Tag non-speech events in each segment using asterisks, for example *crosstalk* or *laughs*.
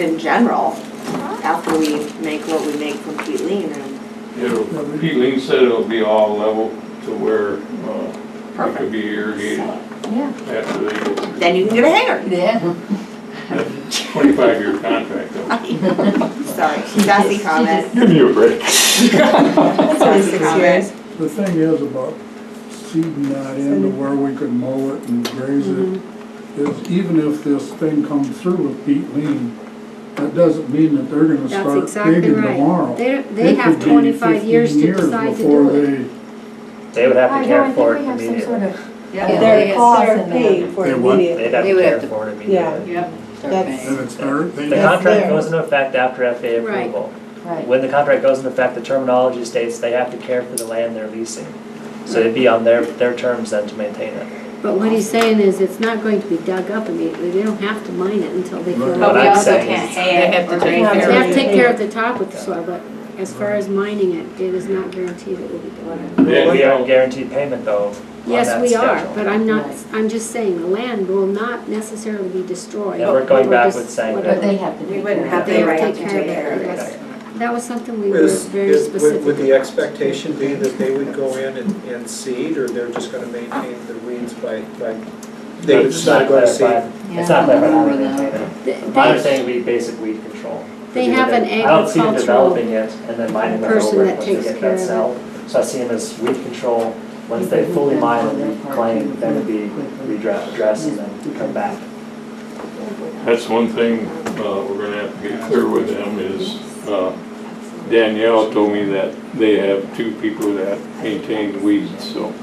in general, after we make what we make from Pete Lean and It'll, Pete Lean said it'll be all level to where, uh, it could perfect. be irrigated after they go through. Then you can get a hanger. *laughs* Yeah. That's a Twenty-five year *laughs* contract though. Sorry, sassy comment. *laughs* Give me a break. Sassy comment. The thing is about seeding that into where we could mow it and graze it, Mm-hmm. is even if this thing comes through with peat lean, that doesn't mean that they're gonna That's start exactly digging right. tomorrow. They, It they have could be twenty-five years 15 to decide to before do it. they- They would have I to know, I care think for we it have some sort immediately. Yeah, Their yes. costs They're are paid for They what? immediately. They'd have They to would care have to- for it Yeah. immediately. Yep. That's- And it's their, they, The That's contract theirs. goes into effect after FAA Right. approval. Right. When the contract goes into effect, the terminology states they have to care for the land they're leasing. So it'd be on their, their terms then to maintain it. But what he's saying is it's not going to be dug up immediately. They don't have to mine it until they Right. feel. But But we we I'm They also also saying can't can't hand or or take take care have care to of take care of the top with the soil, but as far as mining it, it is not guaranteed it will be done. Yeah, We yeah. are guaranteed payment though. on Yes, that we are, schedule. but I'm not, Right. I'm just saying the land will not necessarily be destroyed. And we're going Or back just with saying whatever. But they have to We take wouldn't care have of They it. the have to right take to care take of care it, of yes. it. That was something we were Is, very is, would, specific. would the about. expectation be that they would go in and, and seed, or they're just gonna maintain the weeds by, by, they would It's just not go to seed? clarified. It's not clarified how we maintain it. They- My they- understanding would be basic weed control. They have an I don't see them agricultural developing it and then mining it person over that once they takes get care of that it. cell. So I see them as weed control, once they fully mine and claim, then it'd be redress, addressed and then come back. That's one thing, uh, we're gonna have to get clear with them is, uh, Danielle told me that they have two people that maintain weeds, so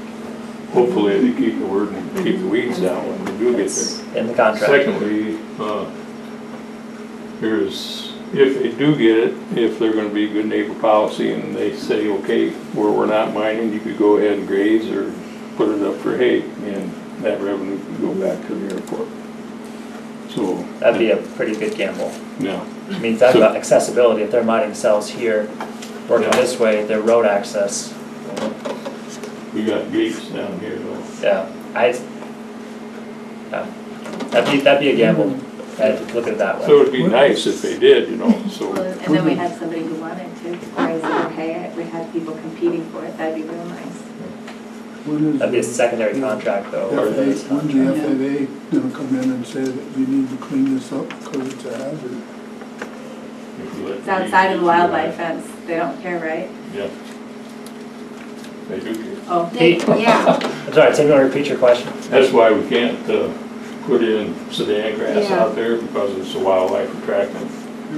hopefully they keep the word and keep the weeds down when they do get there. It's in the contract. Secondly, uh, there's, if they do get it, if they're gonna be good neighbor policy and they say, okay, where we're not mining, you could go ahead and graze or put it up for hay, and that revenue can go back to the airport. So. That'd be a pretty good gamble. Yeah, I mean, talk about accessibility, if they're mining cells here, working Yeah. this way, their road access, we got gates down here though. yeah, I, yeah. That'd be, that'd be a gamble, Mm-hmm. I'd look at it that way. So it'd be nice if they did, you know, so, Well, and then we had somebody who wanted to raise their hay, we had people competing for it, that'd be real nice. when is That'd be a the secondary contract though. or FAA, this when's contract. the FAA gonna come in and say that you need to clean this up because it's a hazard? if you let. It's outside of the wildlife fence, they don't care, right? Yeah. They do get Oh. They- Yeah, I'm sorry, Tim, you want to repeat your question? That's why we can't uh, put in sedan grass Yeah. out there because it's a wildlife attractant.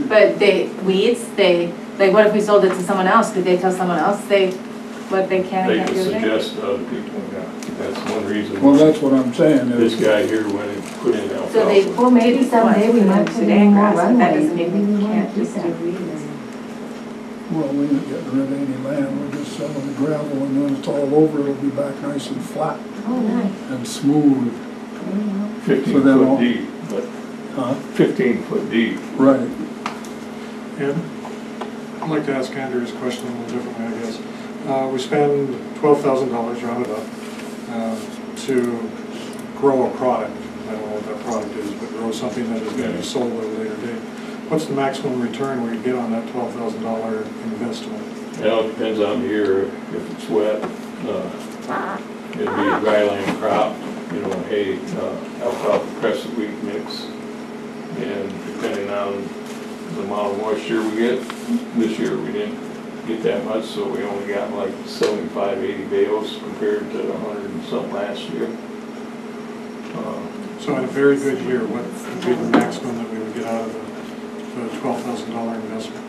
But they, weeds, they, like, what if we sold it to someone else, could they tell someone else they, what they can They and can can't do with it? suggest to other people, yeah. That's one Well, reason that's what I'm saying, this is guy here went and put in So they, alfalfa. well, maybe someday we might put in more runways, That doesn't mean maybe we we wanna can't do just do that. weeds. Well, we ain't getting rid of any land, we're just selling the gravel, and when it's all over, it'll be back nice and flat Oh, nice. and smooth, Fifteen so then all- foot deep, but huh? fifteen foot deep. Right. I'd like to ask Andrew's question a little differently, I guess. Uh, We spend twelve thousand dollars rounded up uh, to grow a product. I don't know what that product is, but grow something that is going to be sold at a later date. What's the maximum return we get on that twelve thousand dollar investment? Now, it depends on the year, if it's wet, uh, it'd be a dry land crop, you know, hay, uh, alfalfa crescent wheat mix. And depending on the amount of moisture we get, this year we didn't get that much, so we only got like 75, 80 bales compared to a hundred and something last year. Uh, So in a very good year, what would be the maximum that we would get out of the- the twelve thousand dollar investment?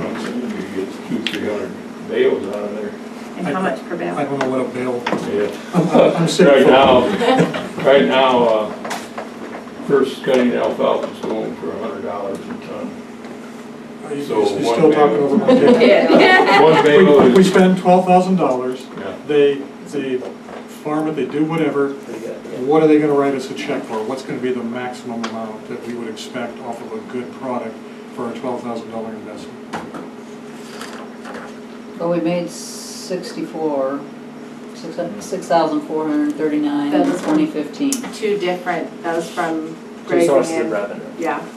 I'm saying we get two, 300 bales out of there. And how much per I bale? don't know what a bale, Yeah. I'm sick. Right now, *laughs* right now, uh, first cutting alfalfa is going for a hundred dollars a *laughs* ton. you're So still one talking bale. over my *laughs* head. One bale We- We is, spend twelve thousand dollars, yeah, they, they farm it, they do whatever, Pretty good, yeah. what are they gonna write us a check for? What's gonna be the maximum amount that we would expect off of a good product for a twelve thousand dollar investment? Well, we made sixty-four, six thousand four hundred thirty-nine in That was one. twenty fifteen. Two different, those from Two sources grazing of and, revenue. yeah,